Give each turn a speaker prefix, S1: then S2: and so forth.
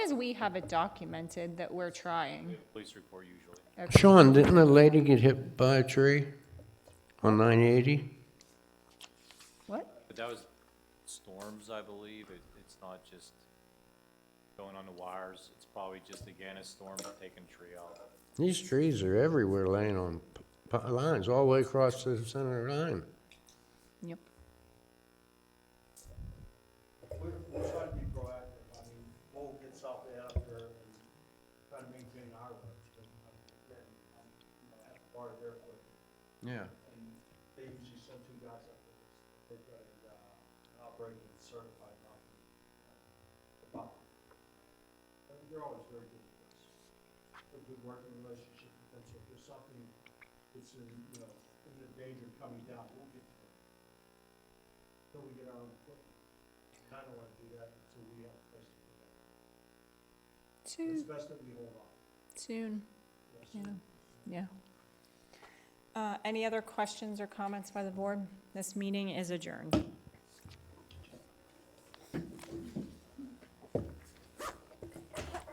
S1: as we have it documented that we're trying.
S2: Police report usually.
S1: Okay.
S3: Sean, didn't a lady get hit by a tree on 980?
S1: What?
S2: But that was storms, I believe. It, it's not just going on the wires. It's probably just, again, a storm taking a tree out.
S3: These trees are everywhere laying on p- p- lines, all the way across the center line.
S1: Yep.
S4: We're, we're trying to be proactive, I mean, we'll get something out there and try to maintain our roads, but, um, then, um, you know, that's part of their work.
S3: Yeah.
S4: And they usually send two guys up there, they've got a, uh, an operating and certified uh, company. But They're always very good with us, a good working relationship with them, so if there's something that's in, you know, in the danger of coming down, we'll get to it. Till we get our own equipment. I don't wanna do that until we have a place to put that. It's
S1: Too
S4: best that we hold on.
S1: soon.
S4: yes.
S1: Yeah. Yeah.
S5: Uh, Any other questions or comments by the board? This meeting is adjourned.